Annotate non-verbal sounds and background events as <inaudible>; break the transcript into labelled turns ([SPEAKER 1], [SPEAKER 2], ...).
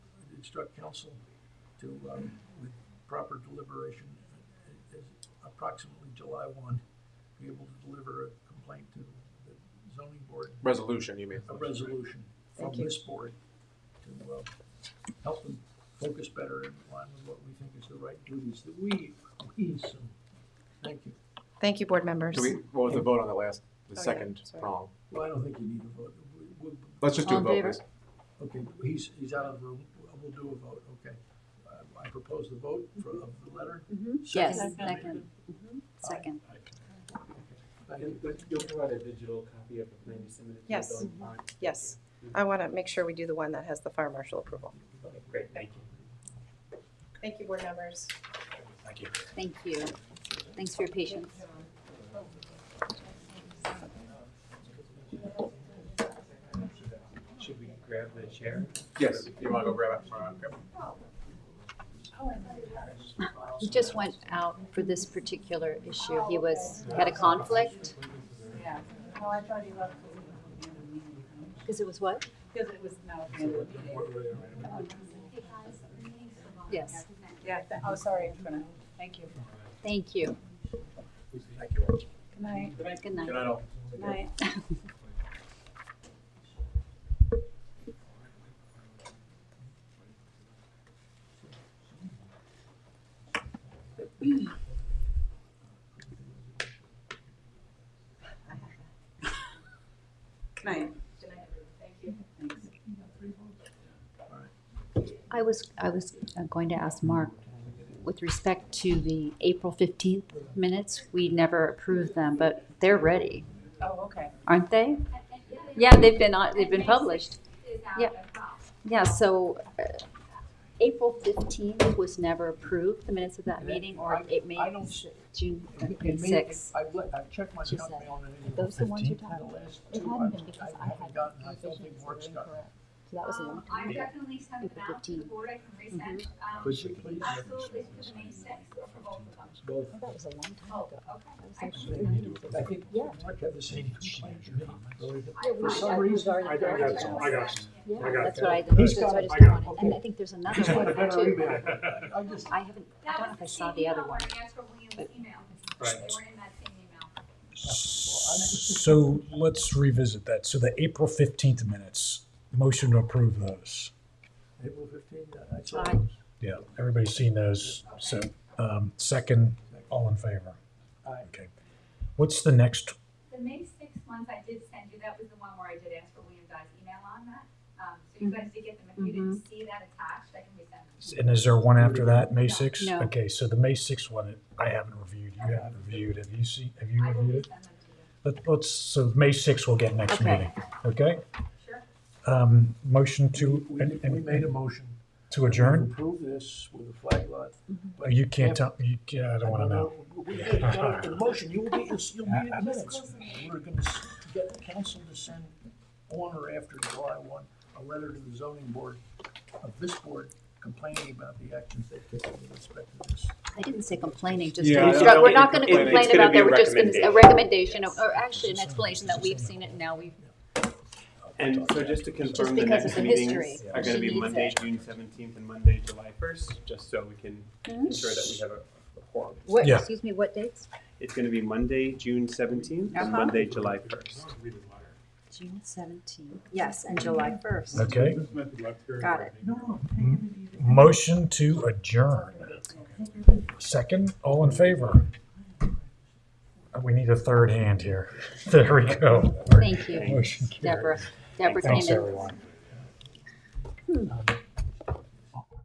[SPEAKER 1] instruct council to, um, with proper deliberation, uh, as approximately July one, be able to deliver a complaint to the zoning board,
[SPEAKER 2] Resolution, you mean?
[SPEAKER 1] a resolution from
[SPEAKER 3] Thank you.
[SPEAKER 1] this board to, uh, help them focus better in line with what we think is the right duties that we, we assume. Thank you.
[SPEAKER 3] Thank you, board members.
[SPEAKER 2] Do we, what was the vote on the last, the
[SPEAKER 3] Oh, yeah,
[SPEAKER 2] second
[SPEAKER 3] sorry.
[SPEAKER 2] prong?
[SPEAKER 1] Well, I don't think you need a vote. We- we-
[SPEAKER 2] Let's just do
[SPEAKER 3] All
[SPEAKER 2] a
[SPEAKER 3] in
[SPEAKER 2] vote,
[SPEAKER 3] favor?
[SPEAKER 2] please.
[SPEAKER 1] Okay, he's, he's out of the room. We'll do a vote, okay. Uh, I propose the vote for, of the letter.
[SPEAKER 4] Mm-hmm. Yes,
[SPEAKER 1] Second.
[SPEAKER 4] second. Mm-hmm. Second.
[SPEAKER 1] Aye, aye. Thank you.
[SPEAKER 5] And but you'll provide a digital copy of the plan you submitted to the
[SPEAKER 3] Yes.
[SPEAKER 5] building? All right.
[SPEAKER 3] Yes, I want to make sure we do the one that has the fire marshal approval.
[SPEAKER 5] Okay, Great, thank you.
[SPEAKER 3] Thank you, board members.
[SPEAKER 2] Thank you.
[SPEAKER 4] Thank you. Thanks for your patience.
[SPEAKER 5] Should we grab the chair?
[SPEAKER 2] Yes, you wanna go grab it? Alright, grab it.
[SPEAKER 4] He just went out for this particular issue. He was, had a conflict
[SPEAKER 6] Oh, I thought he left
[SPEAKER 4] because it was what?
[SPEAKER 6] because it was now the end of the meeting.
[SPEAKER 4] Yes,
[SPEAKER 6] Yeah, th- oh, sorry, I'm gonna, thank you.
[SPEAKER 4] thank you.
[SPEAKER 2] Thank you. all.
[SPEAKER 6] Good night.
[SPEAKER 4] Good night.
[SPEAKER 2] Good night, all.
[SPEAKER 6] Good night. Good night. Good night, thank you. Thanks.
[SPEAKER 4] <laughs> I was, I was uh, going to ask Mark, with respect to the April 15th minutes, we never approved them, but they're ready,
[SPEAKER 6] Oh, okay.
[SPEAKER 4] aren't they? Yeah, they've been, on- they've been published. Yeah, yeah, so uh, April 15th was never approved, the minutes of that meeting, or it may,
[SPEAKER 1] I don't-
[SPEAKER 4] June
[SPEAKER 1] It- it may-
[SPEAKER 4] 6th.
[SPEAKER 1] I've, let- I've checked my
[SPEAKER 4] She
[SPEAKER 1] junk
[SPEAKER 4] said.
[SPEAKER 1] mail and it.
[SPEAKER 7] Those the ones you're
[SPEAKER 1] The
[SPEAKER 7] talking
[SPEAKER 1] last
[SPEAKER 7] It
[SPEAKER 1] two
[SPEAKER 7] hadn't
[SPEAKER 1] I've-
[SPEAKER 7] been because
[SPEAKER 1] I
[SPEAKER 7] I
[SPEAKER 1] haven't
[SPEAKER 7] had
[SPEAKER 1] gotten, I don't think
[SPEAKER 7] revisions that were
[SPEAKER 1] work's
[SPEAKER 7] incorrect.
[SPEAKER 1] gotten.
[SPEAKER 7] So that was a long
[SPEAKER 8] Um,
[SPEAKER 7] time
[SPEAKER 8] I
[SPEAKER 7] ago.
[SPEAKER 8] definitely sent
[SPEAKER 4] April
[SPEAKER 8] them out to the
[SPEAKER 4] 15.
[SPEAKER 8] board, I can resend, um,
[SPEAKER 1] Could you
[SPEAKER 2] Mm-hmm.
[SPEAKER 1] please?
[SPEAKER 8] absolutely to May sixth for both of them.
[SPEAKER 1] Both.
[SPEAKER 7] Oh, That was a long time
[SPEAKER 8] Oh,
[SPEAKER 7] ago.
[SPEAKER 8] okay.
[SPEAKER 7] That was
[SPEAKER 8] I-
[SPEAKER 7] actually a meeting.
[SPEAKER 1] I think
[SPEAKER 7] Yeah.
[SPEAKER 1] Mark had the same complaint.
[SPEAKER 7] we-
[SPEAKER 1] For
[SPEAKER 7] I
[SPEAKER 1] some
[SPEAKER 7] was
[SPEAKER 1] reason.
[SPEAKER 7] already- I got
[SPEAKER 8] I
[SPEAKER 7] some.
[SPEAKER 8] got
[SPEAKER 7] Yeah,
[SPEAKER 2] I got
[SPEAKER 4] That's what I,
[SPEAKER 1] He's
[SPEAKER 4] that's
[SPEAKER 1] got
[SPEAKER 4] what
[SPEAKER 1] it. I got
[SPEAKER 4] I just
[SPEAKER 1] it.
[SPEAKER 4] wanted, and I think there's another
[SPEAKER 1] He's got a
[SPEAKER 4] one
[SPEAKER 1] better
[SPEAKER 4] too.
[SPEAKER 1] email. I- I just,
[SPEAKER 4] I haven't, I
[SPEAKER 8] That
[SPEAKER 4] don't know
[SPEAKER 8] was
[SPEAKER 4] if
[SPEAKER 8] the
[SPEAKER 4] I saw
[SPEAKER 8] same
[SPEAKER 4] the other
[SPEAKER 8] email
[SPEAKER 4] one.
[SPEAKER 8] where I asked for William's email.
[SPEAKER 5] Right.
[SPEAKER 8] They were in that same email.
[SPEAKER 9] So let's revisit that. So the April fifteenth minutes, motion to approve those.
[SPEAKER 1] April fifteenth, I saw
[SPEAKER 4] Aye.
[SPEAKER 1] those.
[SPEAKER 9] Yeah, everybody's seen those. So, um, second, all in favor?
[SPEAKER 1] Aye.
[SPEAKER 9] Okay. What's the next?
[SPEAKER 8] The May sixth ones I did send you, that was the one where I did ask for William Dye's email on that. Um, so you guys did get them, if you didn't see that attached, I can resend them.
[SPEAKER 9] And is there one after that, May sixth?
[SPEAKER 4] No.
[SPEAKER 9] Okay, so the May sixth one, I haven't reviewed. You haven't reviewed. Have you seen, have you
[SPEAKER 8] I will
[SPEAKER 9] reviewed it?
[SPEAKER 8] resend them to you.
[SPEAKER 9] Let, let's, so May sixth we'll get next
[SPEAKER 4] Okay.
[SPEAKER 9] meeting. Okay?
[SPEAKER 8] Sure.
[SPEAKER 9] Um, motion to,
[SPEAKER 1] We,
[SPEAKER 9] and-
[SPEAKER 1] we- we made a
[SPEAKER 9] and-
[SPEAKER 1] motion.
[SPEAKER 9] to adjourn?
[SPEAKER 1] Approve this with a flag lot.
[SPEAKER 9] Oh, You can't tell, you, can't- I don't want to know.
[SPEAKER 1] We did, no, the motion, you will be, you'll you'll be in the minutes. We're gonna s- get the council to send on or after July one, a letter to the zoning board of this board complaining about the actions they've taken with respect to this.
[SPEAKER 4] I didn't say complaining, just
[SPEAKER 2] Yeah,
[SPEAKER 4] to
[SPEAKER 2] I
[SPEAKER 4] instruct,
[SPEAKER 2] don't
[SPEAKER 4] we're
[SPEAKER 2] think
[SPEAKER 4] not gonna
[SPEAKER 2] it's complaining.
[SPEAKER 4] complain
[SPEAKER 2] It's gonna
[SPEAKER 4] about
[SPEAKER 2] be a
[SPEAKER 4] that, we're just gonna, a recommendation, or- or actually an
[SPEAKER 9] Yes.
[SPEAKER 4] explanation that we've seen it now, we've,
[SPEAKER 2] And so just to confirm, the
[SPEAKER 4] because
[SPEAKER 2] next
[SPEAKER 4] of the
[SPEAKER 2] meetings
[SPEAKER 4] history,
[SPEAKER 2] are
[SPEAKER 4] she
[SPEAKER 2] gonna be
[SPEAKER 4] needs
[SPEAKER 2] Monday,
[SPEAKER 4] it.
[SPEAKER 2] June seventeenth and Monday, July first, just so we can
[SPEAKER 4] Mhm.
[SPEAKER 2] ensure that we have a a quorum.
[SPEAKER 4] what,
[SPEAKER 9] Yeah.
[SPEAKER 4] excuse me, what dates?
[SPEAKER 2] It's gonna be Monday, June seventeenth and
[SPEAKER 4] Uh-huh.
[SPEAKER 2] Monday, July first.
[SPEAKER 4] June seventeenth, yes, and July first.
[SPEAKER 9] Okay,
[SPEAKER 4] Got it.
[SPEAKER 1] No, no,
[SPEAKER 9] motion to adjourn. Second, all in favor? Uh, We need a third hand here. <laughs> There we go.
[SPEAKER 4] Thank you,
[SPEAKER 9] Motion carried.
[SPEAKER 4] Deborah, Deborah
[SPEAKER 9] Thanks,
[SPEAKER 4] came in.
[SPEAKER 9] everyone.